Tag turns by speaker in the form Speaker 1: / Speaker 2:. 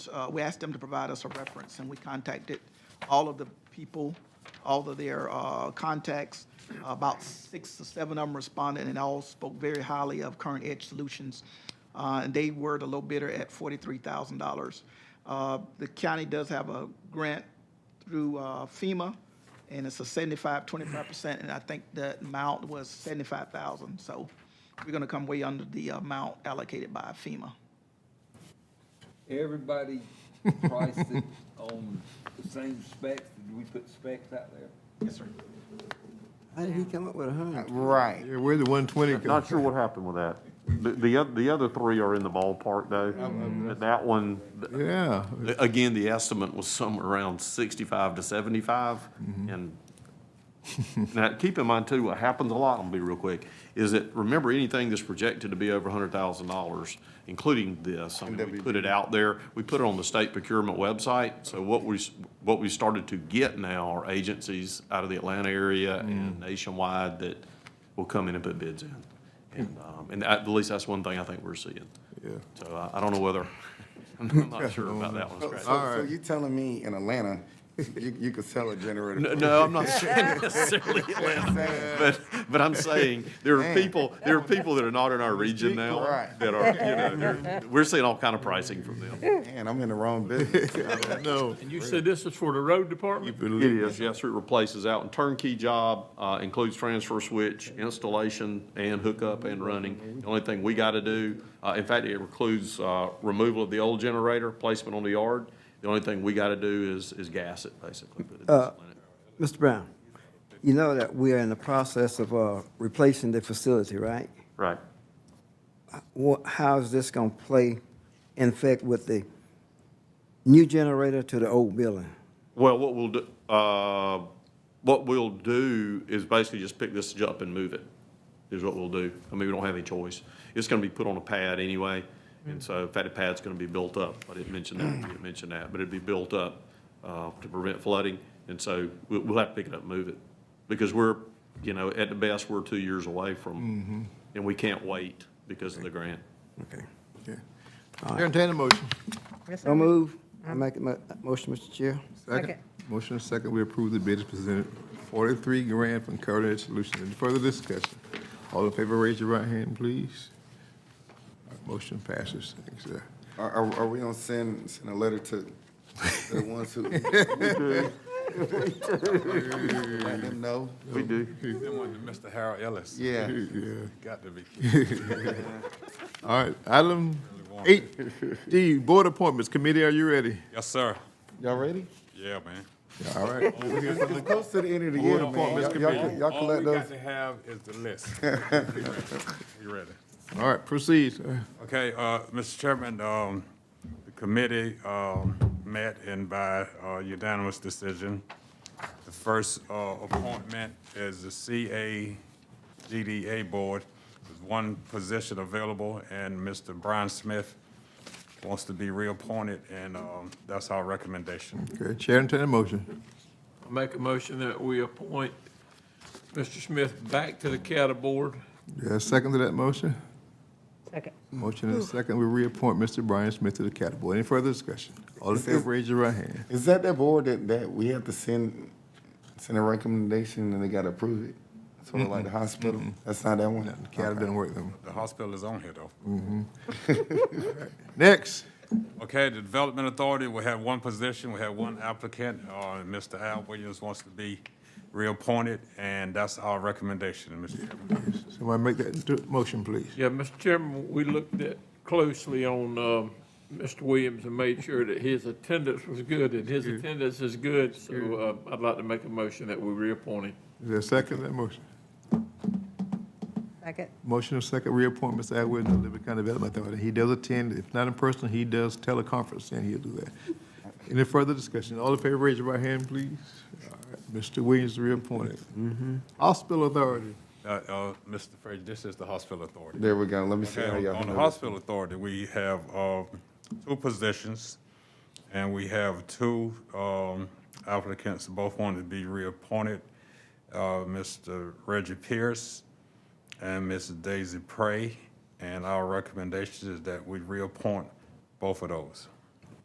Speaker 1: uh, we asked them to provide us a reference, and we contacted all of the people, all of their uh, contacts. About six or seven of them responded, and all spoke very highly of Current Edge Solutions. Uh, And they were the low bidder at $43,000. Uh, The county does have a grant through uh, FEMA, and it's a 75, 25%, and I think the amount was 75,000. So we're going to come way under the amount allocated by FEMA.
Speaker 2: Everybody priced it on the same specs, did we put specs out there?
Speaker 1: Yes, sir.
Speaker 3: How did he come up with a hundred?
Speaker 4: Right.
Speaker 5: Yeah, where the one twenty
Speaker 6: Not
Speaker 5: comes
Speaker 6: sure what happened with that. The, the, oth- the other three are in the ballpark though. But That one, th-
Speaker 5: Yeah,
Speaker 7: Again, the estimate was somewhere around sixty-five to seventy-five, and now, keep in mind too, what happens a lot, I'll be real quick, is that, remember, anything that's projected to be over hundred thousand dollars, including this, I mean, we put it out there, we put it on the state procurement website, so what we, s- what we started to get now are agencies out of the Atlanta area and nationwide that will come in and put bids in. And, um, and at least that's one thing I think we're seeing.
Speaker 5: Yeah.
Speaker 7: So I, I don't know whether, I'm not sure about that one,
Speaker 4: So,
Speaker 7: Scratch.
Speaker 4: so- so you telling me in Atlanta, you, you could sell a generator?
Speaker 7: No,
Speaker 4: for-
Speaker 7: no, I'm not saying necessarily Atlanta, but, but I'm saying, there are
Speaker 4: Man.
Speaker 7: people, there are people that are not in our region now.
Speaker 4: Right.
Speaker 7: That are, you know, they're- we're seeing all kind of pricing from them.
Speaker 4: Man, I'm in the wrong business.
Speaker 5: no.
Speaker 8: And you said this is for the road department?
Speaker 7: It is, yes, sir, it replaces out and turnkey job, uh, includes transfer switch, installation, and hookup and running. The only thing we gotta do, uh, in fact, it includes, uh, removal of the old generator, placement on the yard. The only thing we gotta do is, is gas it, basically. but it's-
Speaker 3: Mr. Brown, you know that we are in the process of, uh, replacing the facility, right?
Speaker 7: Right.
Speaker 3: What, how is this gonna play in effect with the new generator to the old building?
Speaker 7: Well, what we'll do, uh, what we'll do is basically just pick this up and move it, is what we'll do. I mean, we don't have any choice. It's gonna be put on a pad anyway, and so, in fact, the pad's gonna be built up. I didn't mention that, I didn't mention that, but it'd be built up, uh, to prevent flooding, and so we'll, we'll have to pick it up and move it. Because we're, you know, at the best, we're two years away from, and we can't wait because of the grant.
Speaker 3: Okay.
Speaker 5: Okay. Entertain a motion.
Speaker 3: So move. I make a mo- motion, Mr. Chair.
Speaker 5: Second. Motion and second, we approve the bid as presented, forty-three grand from Current Edge Solutions. Any further discussion? All in favor, raise your right hand, please. Motion passes. Thanks, sir.
Speaker 4: Are, are, are we gonna send, send a letter to to the ones who? Let them know,
Speaker 7: We do.
Speaker 9: Then one to Mr. Harold Ellis.
Speaker 4: yeah.
Speaker 5: Yeah.
Speaker 9: Got to be.
Speaker 5: All right, item eight D, board appointments. Committee, are you ready?
Speaker 9: Yes, sir.
Speaker 4: Y'all ready?
Speaker 9: Yeah, man.
Speaker 5: All right.
Speaker 4: We're close to the end of the year, man. Y'all- Y'all, y'all
Speaker 9: All we
Speaker 4: collect those.
Speaker 9: got to have is the list. You ready?
Speaker 5: All right, proceed, sir.
Speaker 9: Okay, uh, Mr. Chairman, um, the committee, um, met and by, uh, unanimous decision. The first, uh, appointment is the CA GDA Board. There's one position available and Mr. Brian Smith wants to be reappointed and, um, that's our recommendation.
Speaker 5: Okay, Chair, entertain a motion.
Speaker 8: I Make a motion that we appoint Mr. Smith back to the CATA board.
Speaker 5: Yeah, second to that motion?
Speaker 10: Second.
Speaker 5: Motion and a second, we reappoint Mr. Brian Smith to the Cattle Board. Any further discussion? All in favor, raise your right hand.
Speaker 4: Is that that board that, that we have to send, send a recommendation and they gotta approve it? Sort of like the hospital? That's not that one?
Speaker 5: The Cattle doesn't work them.
Speaker 9: The hospital is on here though.
Speaker 5: Next,
Speaker 9: Okay, the Development Authority, we have one position, we have one applicant, uh, Mr. Al Williams wants to be reappointed, and that's our recommendation, Mr. Chairman.
Speaker 5: somebody make that into a motion, please.
Speaker 8: Yeah, Mr. Chairman, we looked at closely on, um, Mr. Williams and made sure that his attendance was good, and his attendance is good, so, uh, I'd like to make a motion that we reappoint him.
Speaker 5: Is there a second to that motion?
Speaker 10: Second.
Speaker 5: Motion and second, reappoint Mr. Atwood to the Liberty County Development Authority. He does attend, if not in person, he does teleconference, and he'll do that. Any further discussion? All in favor, raise your right hand, please. All right, Mr. Williams reappointed. Hospital Authority.
Speaker 9: Uh, uh, Mr. Frazier, this is the Hospital Authority.
Speaker 4: There we go. Let me see
Speaker 9: Okay,
Speaker 4: how
Speaker 9: on-
Speaker 4: y'all.
Speaker 9: on the
Speaker 4: do it.
Speaker 9: Hospital Authority, we have, uh, two positions, and we have two, um, applicants, both wanted to be reappointed. Uh, Mr. Reggie Pierce and Ms. Daisy Prey, and our recommendation is that we reappoint both of those.